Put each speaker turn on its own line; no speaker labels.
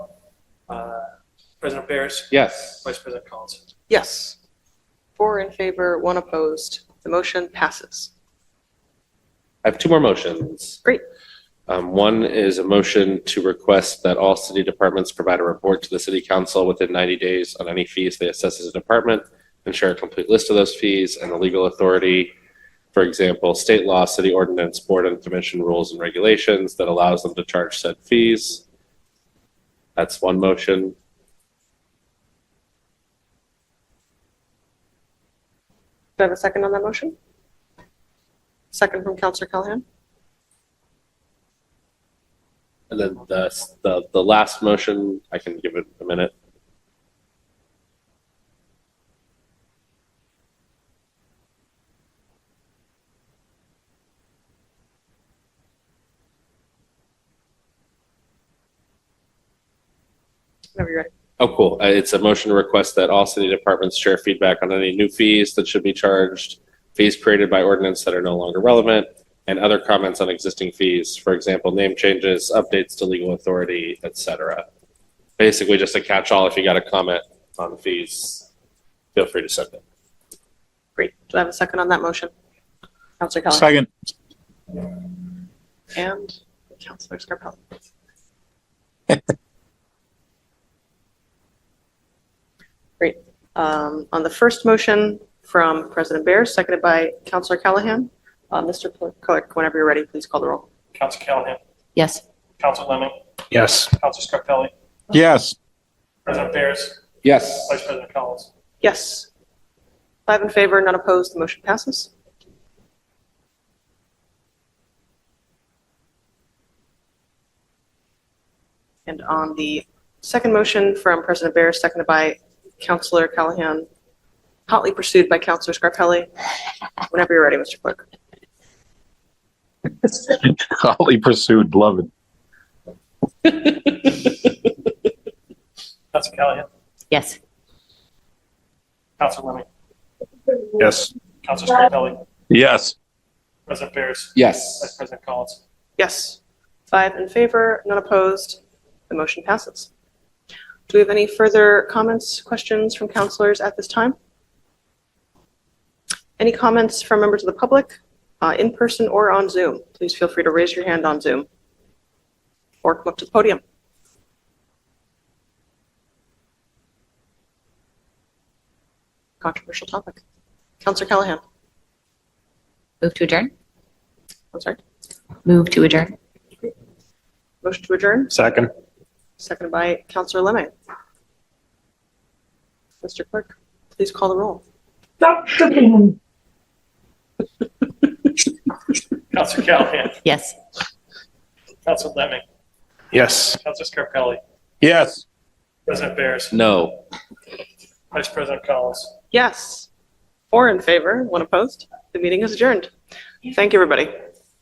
Uh, President Barris,
Yes.
Vice President Collins.
Yes. Four in favor, one opposed. The motion passes.
I have two more motions.
Great.
Um, One is a motion to request that all city departments provide a report to the city council within 90 days on any fees they assess as a department and share a complete list of those fees and the legal authority, for example, state law, city ordinance, board and commission rules and regulations that allows them to charge said fees. That's one motion.
Do I have a second on that motion? Second from Counselor Callahan?
And then the, the, the last motion, I can give it a minute.
Whenever you're ready.
Oh, cool. Uh, It's a motion to request that all city departments share feedback on any new fees that should be charged, fees created by ordinance that are no longer relevant, and other comments on existing fees, for example, name changes, updates to legal authority, et cetera. Basically, just a catch-all. If you got a comment on fees, feel free to send it.
Great. Do I have a second on that motion? Counselor Callahan?
Second,
And Counselor Scarpelli? Great. Um, On the first motion from President Bear, seconded by Counselor Callahan, uh, Mr. Clerk, whenever you're ready, please call the roll.
Council Callahan,
Yes.
Council Lemming,
yes.
Council Scarpelli,
Yes,
President Barris,
Yes.
Vice President Collins.
Yes. Five in favor, none opposed, the motion passes. And on the second motion from President Bear, seconded by Counselor Callahan, hotly pursued by Counselor Scarpelli. Whenever you're ready, Mr. Clerk.
hotly pursued, love it.
Council Callahan,
Yes.
Council Lemming,
Yes.
Council Scarpelli,
Yes.
President Barris, Vice
Yes.
President Collins.
Yes. Five in favor, none opposed, the motion passes. Do we have any further comments, questions from counselors at this time? Any comments from members of the public, uh, in person or on Zoom? Please feel free to raise your hand on Zoom or come up to the podium. Controversial topic. Counselor Callahan,
Move to adjourn?
I'm sorry,
Move to adjourn?
motion to adjourn?
Second.
Seconded by Counselor Lemon. Mr. Clerk, please call the roll.
Council Callahan,
Yes.
Council Lemming,
Yes.
Council Scarpelli,
Yes.
President Barris,
No.
Vice President Collins.
Yes. Four in favor, one opposed. The meeting is adjourned. Thank you, everybody.